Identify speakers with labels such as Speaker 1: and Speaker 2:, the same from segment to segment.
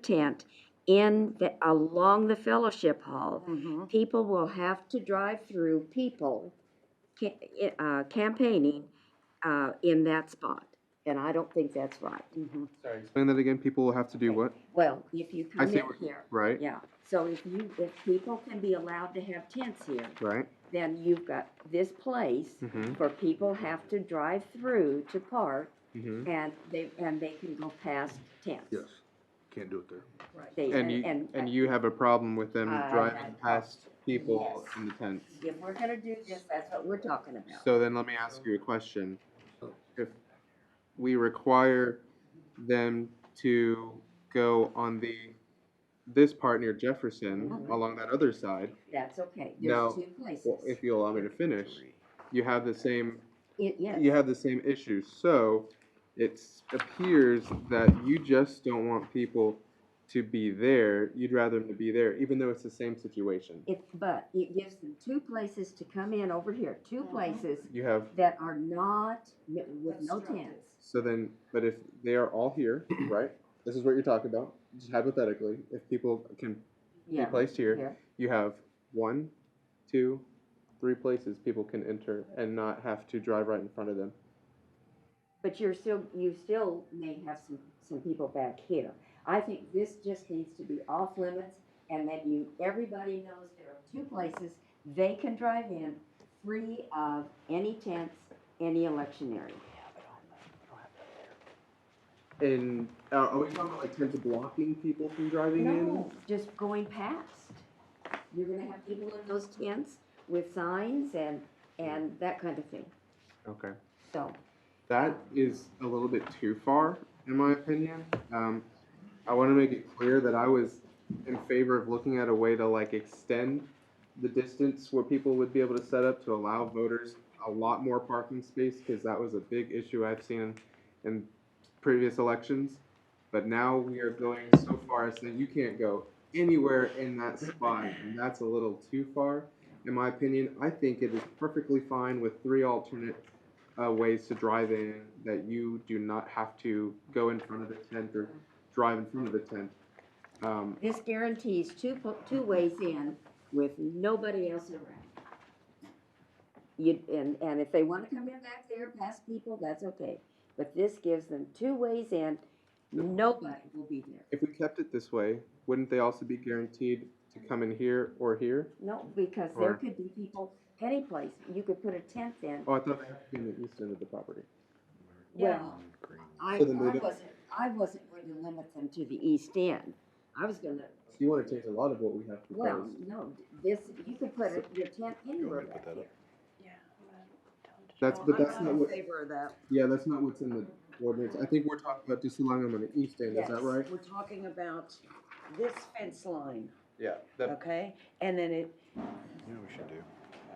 Speaker 1: tent in the, along the fellowship hall.
Speaker 2: Mhm.
Speaker 1: People will have to drive through people ca- i- uh, campaigning uh, in that spot. And I don't think that's right.
Speaker 2: mm-hmm.
Speaker 3: Sorry, explain that again. People will have to do what?
Speaker 1: Well, if you
Speaker 3: I
Speaker 1: come
Speaker 3: see
Speaker 1: in
Speaker 3: what-
Speaker 1: here,
Speaker 3: Right,
Speaker 1: yeah. So if you, if people can be allowed to have tents here,
Speaker 3: right.
Speaker 1: then you've got this place
Speaker 3: Mm-hmm.
Speaker 1: where people have to drive through to park
Speaker 3: Mm-hmm.
Speaker 1: and they, and they can go past tents.
Speaker 4: Yes, can't do it there.
Speaker 1: They-
Speaker 3: And you and, Uh, you have a problem with them
Speaker 1: I-
Speaker 3: driving
Speaker 1: I-
Speaker 3: past people
Speaker 1: Yes.
Speaker 3: in the tents.
Speaker 1: If we're gonna do this, that's what we're talking about.
Speaker 3: So then let me ask you a question. If we require them to go on the this part near Jefferson
Speaker 1: Mhm.
Speaker 3: along that other side,
Speaker 1: That's okay,
Speaker 3: Now,
Speaker 1: there's two places.
Speaker 3: well, if you allow me to finish, you have the same
Speaker 1: It, yes.
Speaker 3: you have the same issue. So it appears that you just don't want people to be there. You'd rather them to be there, even though it's the same situation.
Speaker 1: It, but it gives them two places to come in over here, two
Speaker 2: Mhm.
Speaker 1: places
Speaker 3: You have,
Speaker 1: that are not, mi- with no tents.
Speaker 3: so then, but if they are all here, right? This is what you're talking about, just hypothetically, if people can be
Speaker 1: Yeah,
Speaker 3: placed here,
Speaker 1: here,
Speaker 3: you have one, two, three places people can enter and not have to drive right in front of them.
Speaker 1: but you're still, you still may have some, some people back here. I think this just needs to be off limits, and then you, everybody knows there are two places they can drive in, free of any tents, any electioneering.
Speaker 3: And uh, are we talking about like terms of blocking people from driving in?
Speaker 1: No, just going past. You're gonna have people in those tents with signs and, and that kind of thing,
Speaker 3: Okay.
Speaker 1: so.
Speaker 3: That is a little bit too far, in my opinion. Um, I want to make it clear that I was in favor of looking at a way to like extend the distance where people would be able to set up to allow voters a lot more parking space because that was a big issue I've seen in, in previous elections. But now we are going so far as that you can't go anywhere in that spot, and that's a little too far, in my opinion. I think it is perfectly fine with three alternate uh, ways to drive in that you do not have to go in front of the tent or drive in front of the tent. Um,
Speaker 1: This guarantees two, po- two ways in with nobody else around. You, and, and if they wanna come in back there, past people, that's okay, but this gives them two ways in, nobody will be there.
Speaker 3: if we kept it this way, wouldn't they also be guaranteed to come in here or here?
Speaker 1: No, because there
Speaker 3: Or-
Speaker 1: could be people any place, you could put a tent in,
Speaker 3: Oh, I thought they had to be in the east end of the property.
Speaker 1: well, I, I
Speaker 3: So then they don't-
Speaker 1: wasn't, I wasn't going to limit them to the east end. I was gonna,
Speaker 3: So you want to change a lot of what we have
Speaker 1: well,
Speaker 3: proposed.
Speaker 1: no, this, you could put a- your tent anywhere
Speaker 4: put
Speaker 1: back
Speaker 4: that up?
Speaker 1: here.
Speaker 3: That's, but that's not what,
Speaker 2: favor of that.
Speaker 3: yeah, that's not what's in the ordinance. I think we're talking about just allowing them on the east end, is that
Speaker 2: Yes,
Speaker 3: right?
Speaker 2: We're talking about this fence line,
Speaker 3: Yeah.
Speaker 2: okay? And then it,
Speaker 4: You know what we should do?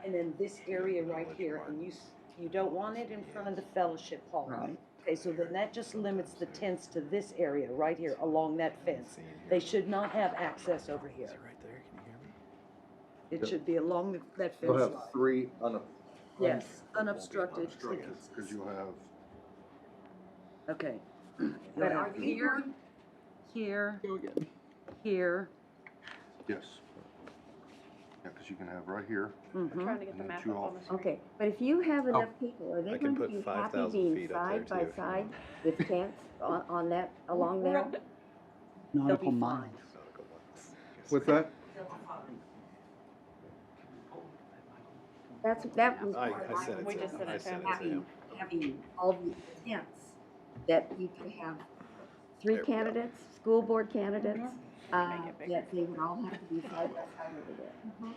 Speaker 2: and then this area right here, and you, s- you don't want it in front of the fellowship hall.
Speaker 1: Right.
Speaker 2: Okay, so then that just limits the tents to this area right here along that fence. They should not have access over here.
Speaker 4: right there, can you hear me?
Speaker 2: It should be along the- that fence
Speaker 5: You'll
Speaker 2: line.
Speaker 5: have three un-
Speaker 2: Yes, unobstructed.
Speaker 5: Cause you'll have,
Speaker 2: Okay.
Speaker 1: But are you
Speaker 2: Here, here, here.
Speaker 5: yes. Yeah, cause you can have right here,
Speaker 2: mhm.
Speaker 6: Trying to get
Speaker 5: And
Speaker 6: the
Speaker 5: then
Speaker 6: map
Speaker 5: two
Speaker 6: up on
Speaker 5: off.
Speaker 6: the screen.
Speaker 1: Mm-hmm. Okay, but if you have enough people, are
Speaker 4: I
Speaker 1: they going
Speaker 4: can
Speaker 1: to
Speaker 4: put
Speaker 1: be
Speaker 4: 5,000
Speaker 1: happy being
Speaker 4: feet up
Speaker 1: side
Speaker 4: there too,
Speaker 1: by
Speaker 4: if you
Speaker 1: side
Speaker 4: want.
Speaker 1: with tents on, on that, along
Speaker 2: We're
Speaker 1: there?
Speaker 2: up to-
Speaker 7: Not
Speaker 2: They'll
Speaker 7: up
Speaker 2: be
Speaker 7: on
Speaker 2: fine.
Speaker 7: mine.
Speaker 3: What's that?
Speaker 1: That's, that was.
Speaker 4: I,
Speaker 1: part of
Speaker 4: I
Speaker 1: my
Speaker 4: sent it
Speaker 6: We
Speaker 4: to
Speaker 6: just
Speaker 4: him,
Speaker 6: sent
Speaker 4: I
Speaker 6: it to
Speaker 4: sent it to
Speaker 1: Having,
Speaker 4: him.
Speaker 1: having all these tents, that you could have three
Speaker 4: There we go.
Speaker 1: candidates, school board candidates, uh,
Speaker 6: Make it bigger.
Speaker 1: that they would all have to be side by side over there.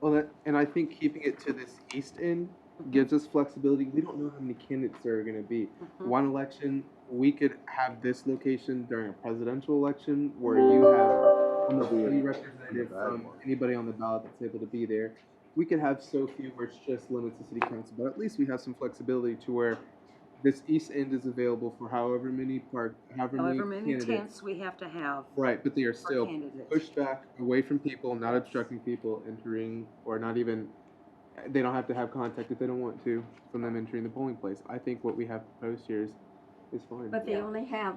Speaker 3: Well, that, and I think keeping it to this east end gives us flexibility. We don't know how many candidates there are going to be.
Speaker 2: Mm-hmm.
Speaker 3: One election, we could have this location during a presidential election where you have almost any representative from um, anybody on the ballot that's able to be there. We could have so few where it's just limits to city council, but at least we have some flexibility to where this east end is available for however many park, however,
Speaker 2: However many
Speaker 3: candidates.
Speaker 2: tents we have to have
Speaker 3: Right, but they are
Speaker 2: per
Speaker 3: still
Speaker 2: candidate.
Speaker 3: push back away from people, not obstructing people entering, or not even, they don't have to have contact if they don't want to from them entering the polling place. I think what we have proposed here is, is fine.
Speaker 1: But they
Speaker 2: Yeah.
Speaker 1: only have,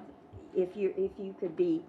Speaker 1: if you, if you could be